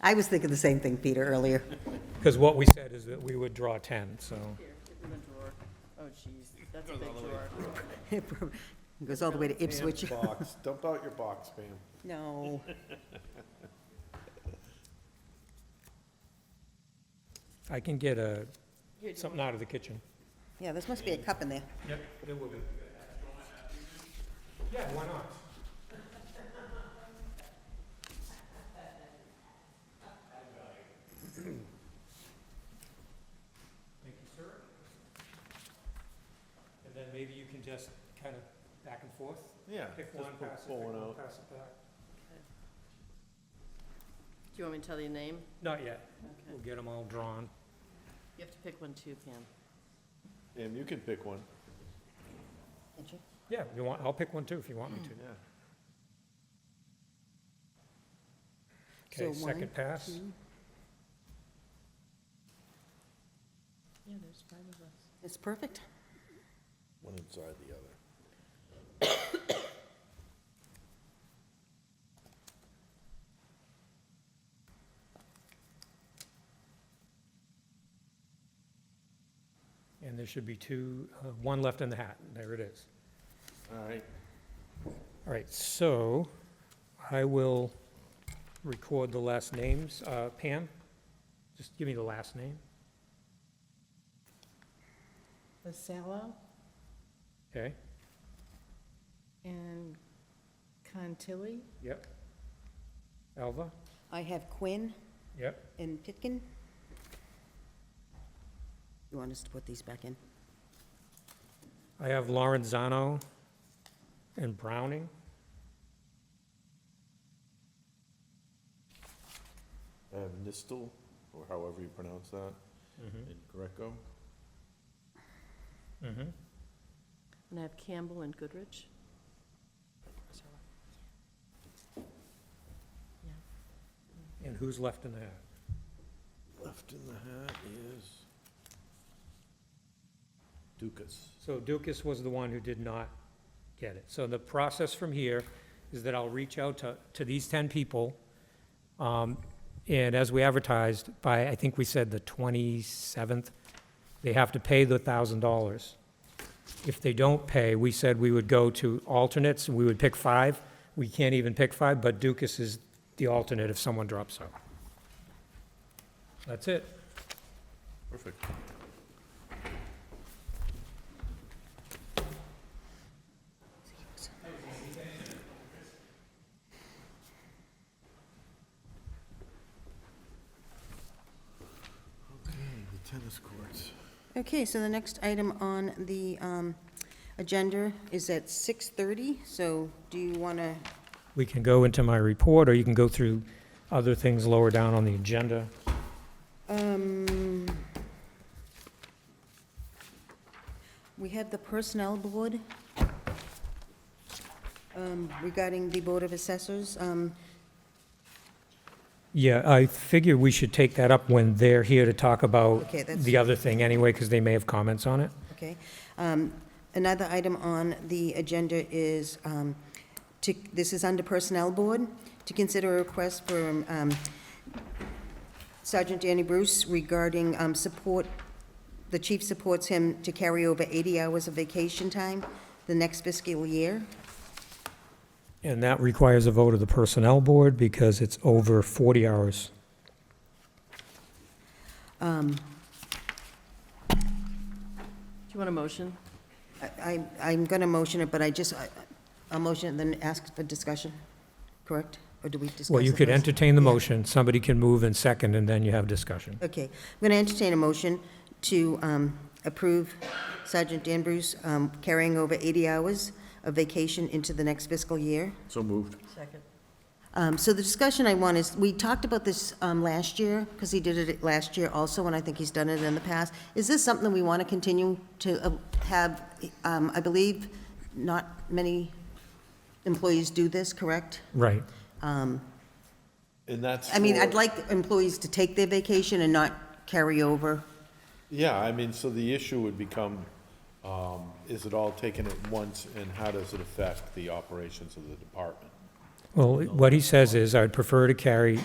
I was thinking the same thing, Peter, earlier. Because what we said is that we would draw 10, so. Here, it's in the drawer. Oh, jeez, that's a big drawer. It goes all the way to Ipswich. Box, dump out your box, ma'am. No. I can get a, Here, do you something out of the kitchen. Yeah, this must be a cup in there. Yep, there will be. Yeah, why not? Thank you, sir. And then maybe you can just kind of back and forth, Yeah. pick just one, pull- pass it, pick pull one one, out. pass it back. Do you want me to tell you your name? Not yet, Okay. we'll get them all drawn. You have to pick one too, Pam. And you can pick one, Did you? Yeah, you want, I'll pick one too if you want me yeah. to. So Okay, one, second pass. two. Yeah, there's five of us. It's perfect. One inside the other. And there should be two, uh, one left in the hat. There it is. All right, All right, so I will record the last names. Uh, Pam, just give me the last name. Vasallo Okay, and Contilli. yep. Alva, I have Quinn yep. and Pitkin. You want us to put these back in? I have Lorenzano and Browning. I have Uh, Nistel, or however you pronounce that, in Greco. Mm-hmm. And I have Campbell and Goodrich. And who's left in the hat? Left in the hat is Dukas. So Dukas was the one who did not get it. So the process from here is that I'll reach out to, to these 10 people. um, And as we advertised, by, I think we said the 27th, they have to pay the $1,000. If they don't pay, we said we would go to alternates, and we would pick five. We can't even pick five, but Dukas is the alternate if someone drops out. That's it. Perfect. Okay, the tennis courts. Okay, so the next item on the um, agenda is at 6:30, so do you want to, We can go into my report, or you can go through other things lower down on the agenda. um, we have the Personnel Board um, regarding the Board of Assessors. Um, Yeah, I figure we should take that up when they're here to talk about Okay, that's- the other thing anyway, because they may have comments on it. Okay. Um, Another item on the agenda is, um, to- this is under Personnel Board, to consider a request for um, Sergeant Danny Bruce regarding um, support, the chief supports him to carry over 80 hours of vacation time the next fiscal year. And that requires a vote of the Personnel Board because it's over 40 hours. Do you want a motion? I- I- I'm going to motion it, but I just, I- I'll motion it and then ask for discussion, correct? Or do we discuss Well, you it could first? entertain the motion, somebody can move and second, and then you have discussion. Okay, I'm going to entertain a motion to um, approve Sergeant Dan Bruce um, carrying over 80 hours of vacation into the next fiscal year. So moved. Second. Um, So the discussion I want is, we talked about this um, last year, because he did it last year also, and I think he's done it in the past. Is this something we want to continue to uh, have? Um, I believe not many employees do this, correct? Right. And that's. I mean, for- I'd like employees to take their vacation and not carry over. Yeah, I mean, so the issue would become, um, is it all taken at once and how does it affect the operations of the department? Well, what he says is, I'd prefer to carry